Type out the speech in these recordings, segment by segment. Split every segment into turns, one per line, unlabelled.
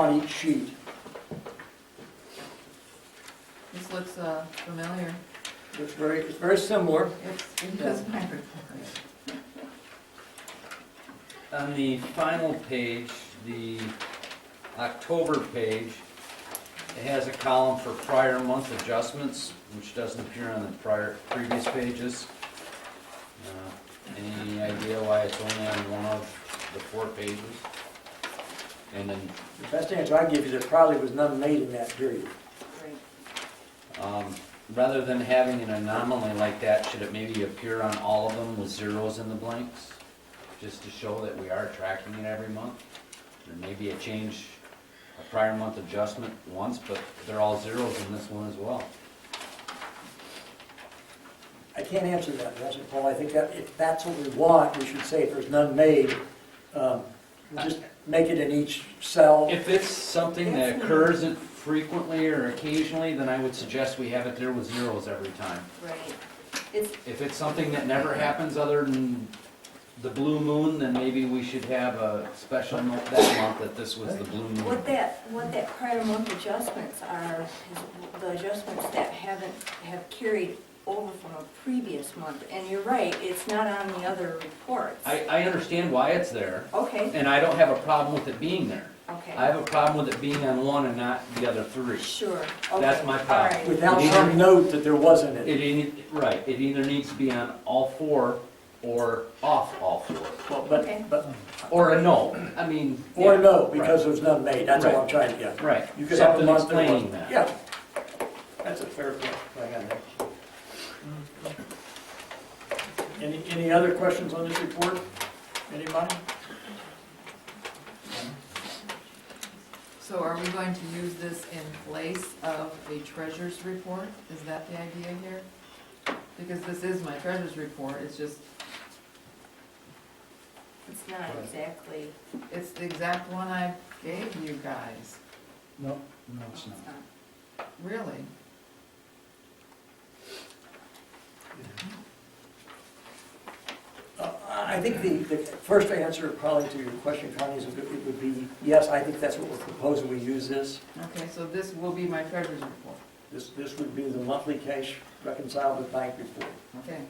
on each sheet.
This looks uh, familiar.
It's very, it's very similar.
It's, it is my report.
On the final page, the October page, it has a column for prior month adjustments, which doesn't appear on the prior, previous pages. Uh, Any idea why it's only on one of the four pages? And then,
The best answer I can give you, there probably was none made in that period.
um, rather than having an anomaly like that, should it maybe appear on all of them with zeros in the blanks? Just to show that we are tracking it every month? There may be a change, a prior month adjustment once, but they're all zeros in this one as well.
I can't answer that, President Paul. I think that, if that's what we want, we should say if there's none made, um, we'll just make it in each cell.
If it's something that occurs frequently or occasionally, then I would suggest we have it there with zeros every time.
Right. It's,
If it's something that never happens other than the blue moon, then maybe we should have a special note that month that this was the blue moon.
what that, what that prior month adjustments are, is the adjustments that haven't, have carried over from a previous month. And you're right, it's not on the other reports.
I, I understand why it's there,
Okay,
and I don't have a problem with it being there. I
okay,
have a problem with it being on one and not the other three.
sure, okay.
That's my problem.
all right.
Without some note that there wasn't
It,
it.
ei- right, it either needs to be on all four or off all four,
Well, But,
Okay.
but,
or a no, I mean.
or
yeah,
no, because there's none made. That's all I'm
Right.
trying to get.
Right,
You could have a
something
month that
explaining
wasn't.
that.
Yeah. That's a fair point. I got that. Any, any other questions on this report? Anybody?
So are we going to use this in place of a treasurer's report? Is that the idea here? Because this is my treasurer's report, it's just,
It's not exactly,
it's the exact one I gave you guys,
No, no, it's
it's
not.
not.
really.
Uh, I think the, the first answer probably to your question, Connie, is it would- it would be, yes, I think that's what we're proposing, we use this.
Okay, so this will be my treasurer's report,
This, this would be the monthly cash reconciled with bank report.
okay?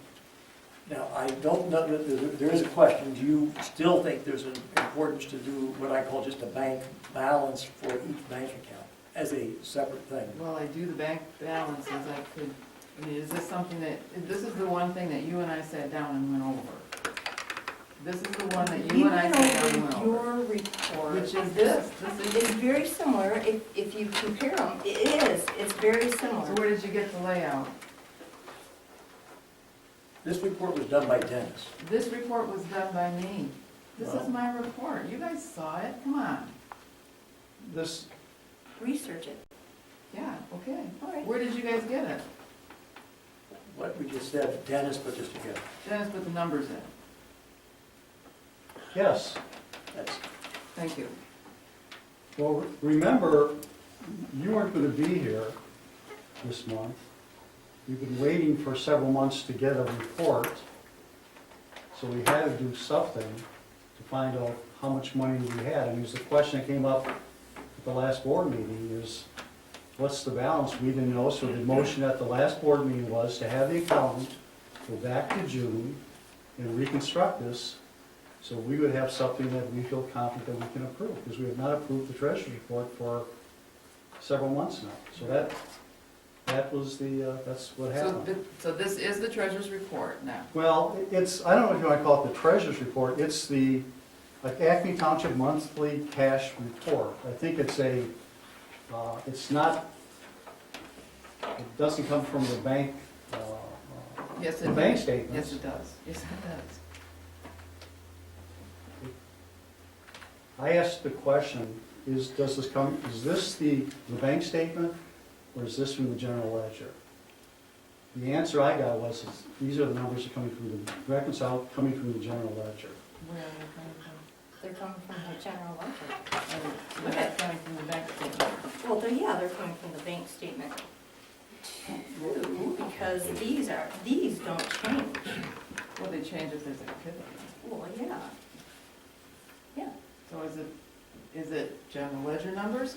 Now, I don't know, that there there is a question, do you still think there's an importance to do what I call just a bank balance for each bank account as a separate thing?
Well, I do the bank balances, I could, I mean, is this something that, this is the one thing that you and I sat down and went over. This is the one that you and I sat down and
Even
went
over
over.
your report.
Which is this, this is,
It's very similar, if, if you compare them, it is, it's very
so
similar.
where did you get the layout?
This report was done by Dennis.
This report was done by me. This is my report, you guys saw it, come on.
This,
Research it,
Yeah, okay.
all right.
Where did you guys get it?
What we just said, Dennis put this together.
Dennis put the numbers in,
yes,
That's,
thank you.
well, remember, you weren't gonna be here this month. You've been waiting for several months to get a report. So we had to do something to find out how much money we had. And it was the question that came up at the last board meeting is, what's the balance? We didn't know, so the motion at the last board meeting was to have the accountant go back to June and reconstruct this So we would have something that we feel confident that we can approve, because we have not approved the treasurer's report for several months now. So that, that was the, uh, that's what
So,
happened.
th- so this is the treasurer's report now.
Well, it's, I don't know if you want to call it the treasurer's report, it's the like Acme Township Monthly Cash Report. I think it's a, uh, it's not, it doesn't come from the bank, uh, uh,
Yes, it
the bank
does.
statements.
Yes, it does, yes, it does.
I asked the question, is, does this come, is this the, the bank statement, or is this from the general ledger? The answer I got was, is these are the numbers that coming from the, reconciled, coming from the general ledger.
Where are they
They're coming from the general ledger.
coming from? Oh, They're coming from the bank statement.
Well, they're, yeah, they're coming from the bank statement too, because these are, these don't change.
Well, they change if there's a pivot.
Well, yeah. Yeah,
So is it, Is it general ledger numbers